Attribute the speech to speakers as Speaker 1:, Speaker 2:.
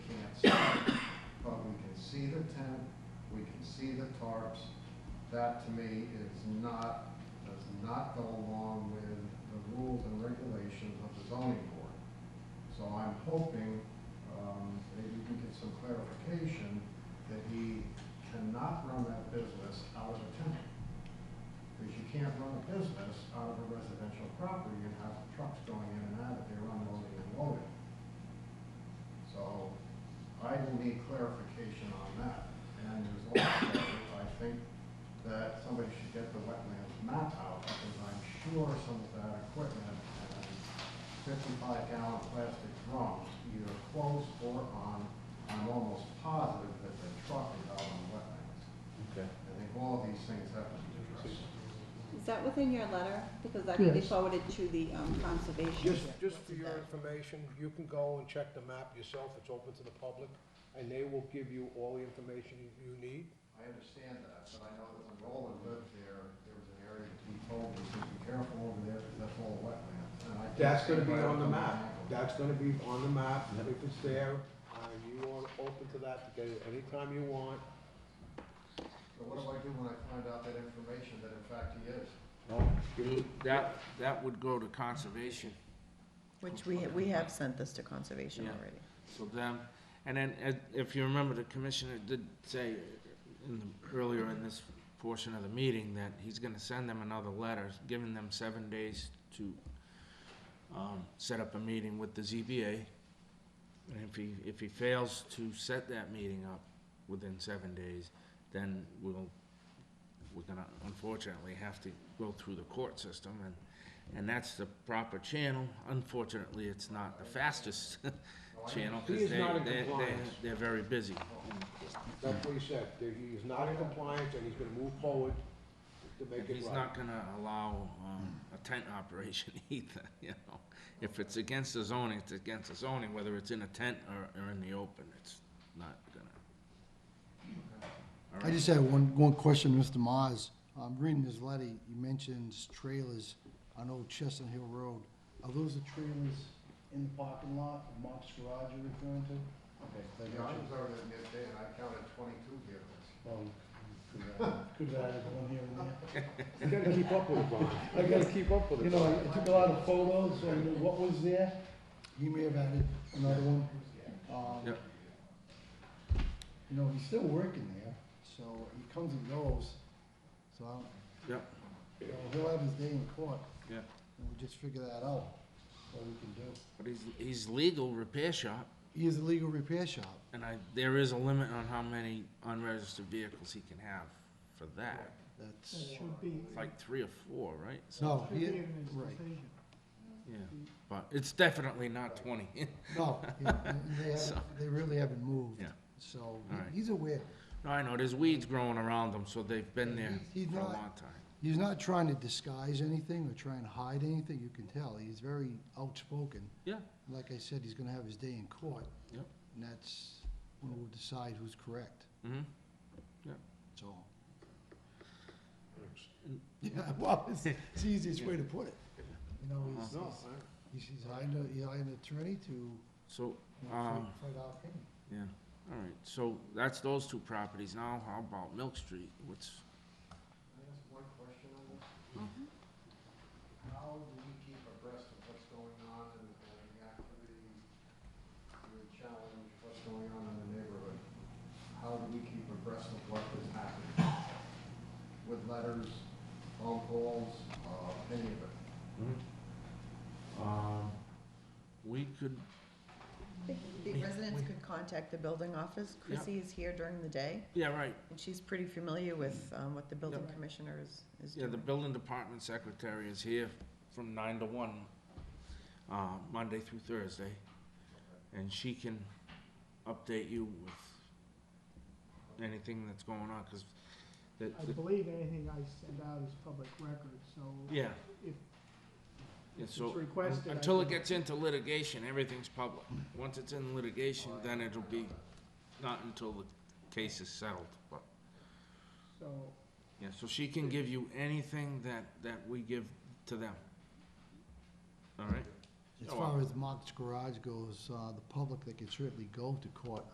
Speaker 1: see the tent, we can see the tarps. That to me is not, does not go along with the rules and regulations of the zoning board. So I'm hoping um, that you can get some clarification that he cannot run that business out of a tent. Because you can't run a business out of a residential property and have trucks going in and out of there unloading and loading. So I will need clarification on that. And as long as I think that somebody should get the wetlands map out because I'm sure some of that equipment and fifty-five gallon plastic drums, either close or on, I'm almost positive that the truck is out on wetlands.
Speaker 2: Okay.
Speaker 1: I think all of these things have to be addressed.
Speaker 3: Is that within your letter? Because that could be
Speaker 4: Yes.
Speaker 3: forwarded to the um, conservation.
Speaker 5: Just, just for your information, you can go and check the map yourself, it's open to the public, and they will give you all the information you need.
Speaker 1: I understand that, but I know that when Roland lived there, there was an area that he told us, be careful over there, because that's all wetlands. And I can't
Speaker 5: That's gonna
Speaker 1: see
Speaker 5: be
Speaker 1: where
Speaker 5: on the
Speaker 1: I'm
Speaker 5: map,
Speaker 1: gonna go.
Speaker 5: that's gonna be on the map, if it's there, and you are open to that, to get it anytime you want.
Speaker 1: So what do I do when I find out that information that in fact he is?
Speaker 5: Give-
Speaker 2: That, that would go to conservation,
Speaker 6: Which we, ha- we have sent this to conservation
Speaker 2: Yeah.
Speaker 6: already.
Speaker 2: so them, and then, uh, if you remember, the commissioner did say in the, earlier in this portion of the meeting that he's gonna send them another letter, giving them seven days to, um, set up a meeting with the ZBA. And if he, if he fails to set that meeting up within seven days, then we'll, we're gonna unfortunately have to go through the court system and, and that's the proper channel. Unfortunately, it's not the fastest channel,
Speaker 5: He
Speaker 2: cause
Speaker 5: is
Speaker 2: they,
Speaker 5: not in
Speaker 2: they, they,
Speaker 5: compliance.
Speaker 2: they're very busy.
Speaker 5: That's what he said, that he is not in compliance, and he's gonna move forward to make it
Speaker 2: He's
Speaker 5: right.
Speaker 2: not gonna allow, um, a tent operation either, you know? If it's against the zoning, it's against the zoning, whether it's in a tent or, or in the open, it's not gonna. All
Speaker 4: I
Speaker 2: right.
Speaker 4: just had one, one question, Mr. Mars. Um, reading this letter, you mentions trailers on Old Chestnut Hill Road. Are those the trailers in the parking lot, of Mark's Garage you're referring to? Okay,
Speaker 1: The
Speaker 4: thank
Speaker 1: guy was
Speaker 4: you.
Speaker 1: over there midday and I counted twenty-two vehicles.
Speaker 4: Well, Um, could have- Could have added one here and
Speaker 5: You
Speaker 4: there.
Speaker 5: gotta keep up with it, Brian.
Speaker 4: I
Speaker 5: You gotta
Speaker 4: gotta
Speaker 5: keep up with it.
Speaker 4: You know, I took a lot of photos on what was there. He may have added another one. Um,
Speaker 2: Yep.
Speaker 4: You know, he's still working there, so he comes and goes, so I don't,
Speaker 2: Yep,
Speaker 4: You know, he'll have his day in court,
Speaker 2: yeah,
Speaker 4: and we'll just figure that out, what we can do.
Speaker 2: but he's, he's legal repair shop,
Speaker 4: He is a legal repair shop.
Speaker 2: and I, there is a limit on how many unregistered vehicles he can have for that.
Speaker 4: That's,
Speaker 7: Should be,
Speaker 2: It's like three or four, right? So,
Speaker 4: no,
Speaker 7: should be
Speaker 4: he,
Speaker 7: in his
Speaker 4: right,
Speaker 7: decision.
Speaker 2: yeah, but it's definitely not twenty.
Speaker 4: no, he- and they
Speaker 2: So-
Speaker 4: haven't, they really haven't moved,
Speaker 2: Yeah.
Speaker 4: so he-
Speaker 2: Alright.
Speaker 4: he's aware.
Speaker 2: No, I know, there's weeds growing around them, so they've been there
Speaker 4: He's
Speaker 2: for a
Speaker 4: not-
Speaker 2: long time.
Speaker 4: He's not trying to disguise anything or trying to hide anything, you can tell, he's very outspoken.
Speaker 2: Yeah,
Speaker 4: Like I said, he's gonna have his day in court.
Speaker 2: Yep.
Speaker 4: And that's when we'll decide who's correct,
Speaker 2: mm-hmm.
Speaker 4: that's all. Yeah, well, it's it's the easiest way to put it. You know, he's,
Speaker 1: Uh-huh.
Speaker 5: No,
Speaker 4: he's- He's, he's hiring, a- he's hiring an attorney to, you
Speaker 2: So,
Speaker 4: know,
Speaker 2: um,
Speaker 4: fight- fight out him.
Speaker 2: yeah, all right, so that's those two properties. Now, how about Milk Street? What's,
Speaker 1: Can I ask one question on this? How do we keep abreast of what's going on and and the activity, the challenge, what's going on in the neighborhood? How do we keep abreast of what is happening? With letters, phone calls, uh, any of it?
Speaker 2: um, we could,
Speaker 6: The residents could contact the building office.
Speaker 2: Yeah.
Speaker 6: Chrissy is here during the day,
Speaker 2: yeah, right,
Speaker 6: and she's pretty familiar with um, what the building
Speaker 2: Yeah.
Speaker 6: commissioner is, is
Speaker 2: yeah, the
Speaker 6: doing.
Speaker 2: building department secretary is here from nine to one, uh, Monday through Thursday. And she can update you with anything that's going on, cause the,
Speaker 7: I
Speaker 2: the,
Speaker 7: believe anything I send out is public record, so
Speaker 2: yeah.
Speaker 7: if
Speaker 2: Yeah,
Speaker 7: it's
Speaker 2: so,
Speaker 7: requested. I
Speaker 2: until it
Speaker 7: can-
Speaker 2: gets into litigation, everything's public. Once it's in litigation, then it'll be, not until the case is settled, but.
Speaker 7: So,
Speaker 2: Yeah, so she can give you anything that, that we give to them. All Oh, right?
Speaker 4: As
Speaker 2: Oh,
Speaker 4: far as Mark's Garage goes, uh, the public, they can certainly go to court